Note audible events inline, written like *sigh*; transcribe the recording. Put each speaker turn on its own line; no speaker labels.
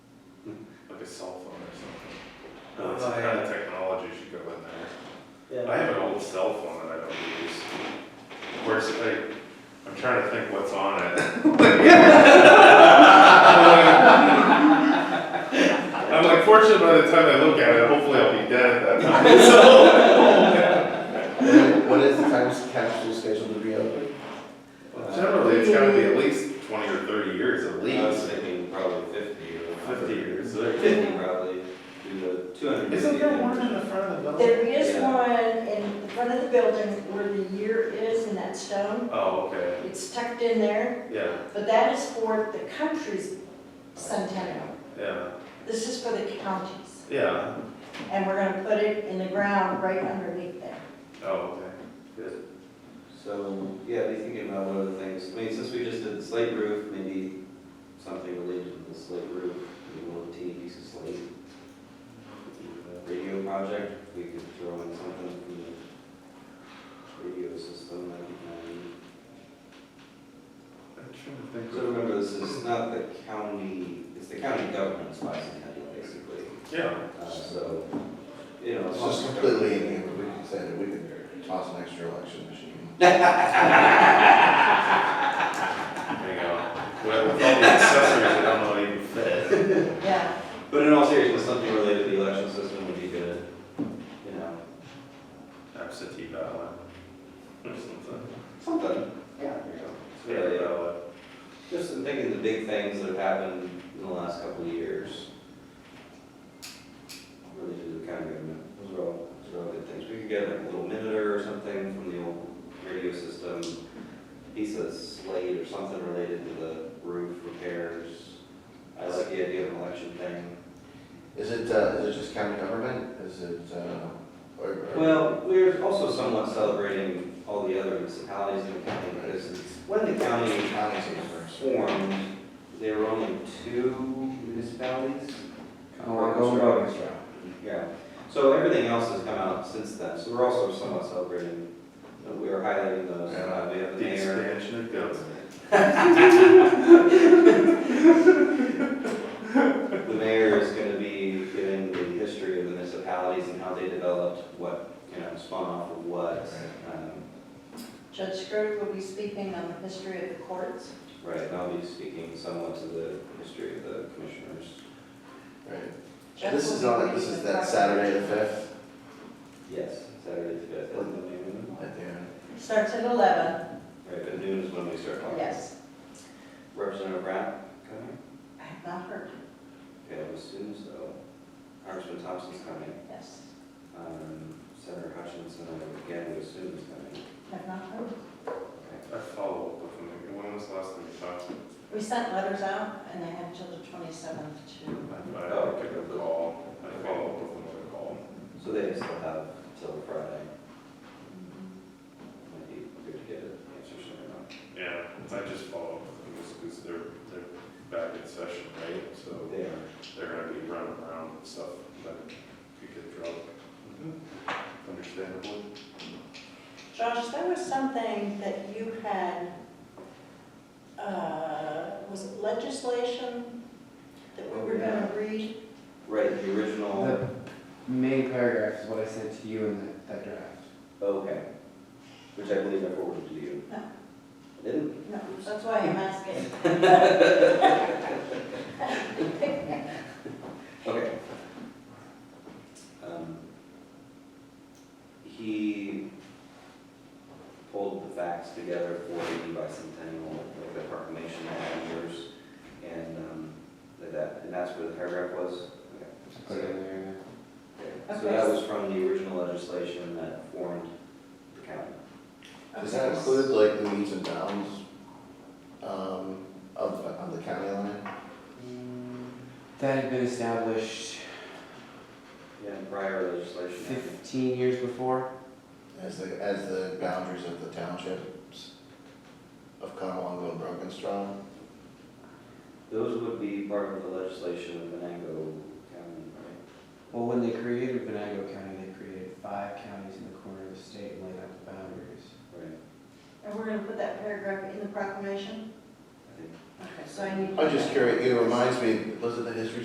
like a cell phone or something.
Oh,
Like some kind
yeah.
of technology should go in there. I
Yeah,
have an old cell phone that I don't use. Of course, I, I'm trying to think what's on *laughs* it. I'm like fortunate by the time I look at it, hopefully I'll be dead at that time. *laughs*
When is the time capsule scheduled to be open?
Generally, it's gotta be at least twenty or thirty years at
I was
least.
thinking probably fifty or.
Fifty years.
Fifty probably, do the two hundred.
Isn't there one in the front of the building?
There is
Yeah.
one in front of the building where the year is in that stone.
Oh, okay,
It's tucked in there,
yeah,
but that is for the country's centennial.
yeah,
This is for the county's.
yeah,
And we're gonna put it in the ground right underneath there.
oh, okay.
So, yeah, be thinking about what other things, I mean, since we just did the slate roof, maybe something related to the slate roof, maybe one of the teeny piece of slate. Radio project, we could throw in something from the radio system, that'd be kind
I'm trying
of-
to
So
think.
remember, this is not the county, it's the county government's bicentennial, basically,
Yeah,
uh, so, you know.
It's just completely in hand, but we can say that we can toss an extra election machine.
there you go. Well, With all the accessories, I don't know what even fit.
Yeah,
But in all seriousness, something related to the election system would be good, you know,
Absentee ballot. Or something.
something, yeah, there you go. It's really, uh,
ballot.
Just in thinking the big things that have happened in the last couple of years. Really to do with county government, those are all, those are all good things. We could get like a little monitor or something from the old radio system, piece of slate or something related to the roof repairs. I like the idea of an election thing.
Is it, uh, is it just county government? Is it, uh, or? or-
Well, we're also somewhat celebrating all the other municipalities in the county, because when the county
County seems first.
formed, there were only two municipalities.
Oh,
Oh, Yeah, so everything else has come out since then, so we're also somewhat celebrating, uh, we are highlighting those, uh, we have *laughs* the
The
mayor.
expansion of government.
The mayor is gonna be giving the history of the municipalities and how they developed, what, you know, spun off of what, um,
Judge Scrooge will be speaking on the history of the courts.
right, and I'll be speaking somewhat to the history of the commissioners.
Right.
Jeff
This
will
is
be
on,
reading
this is
the
that
proclamation.
Saturday the fifth,
Yes, Saturday the fifth, isn't it noon?
at the end.
Starts at eleven,
Right, but noon is when we start talking.
yes.
Representative Brown coming?
I have not heard,
Okay, I assume so. Congressman Thompson's coming.
yes.
Um, Senator Hutchinson, I again, would assume is coming.
I have not heard.
Okay.
I follow up with them. When was the last time you talked to them?
We sent letters out and they had till the twenty-seventh to,
I don't pick up the call. I follow up with them with a call.
So they still have till Friday. Might be good to get an answer sooner on.
Yeah, I just follow up with them just because they're, they're back in session, right? So
They are.
they're gonna be running around and stuff, but you could drop. Understandably.
Josh, there was something that you had, uh, was it legislation that we were gonna read?
Right, the original,
The main paragraph is what I sent to you in that, that draft.
okay, which I believe I forwarded to you.
No.
I Didn't?
No, that's why I'm asking.
*laughs*
Okay. Um, He pulled the facts together for the bicentennial, like the proclamation of the years, and, um, that, and that's where the paragraph was? Okay.
Just Put it in there. and-
Okay. So that was from the original legislation that formed the county.
Does that include like the meets and bounds, um, of, of the county line?
That had been established
Yeah, prior legislation. I think.
fifteen years before.
As the, as the boundaries of the townships of Conowingo and Brokenstone?
Those would be part of the legislation of Venango County, right?
Well, when they created Venango County, they created five counties in the corner of the state and laid out the boundaries.
Right.
And we're gonna put that paragraph in the proclamation?
I think
Okay, so I need.
I'm just curious, it reminds me, was it the history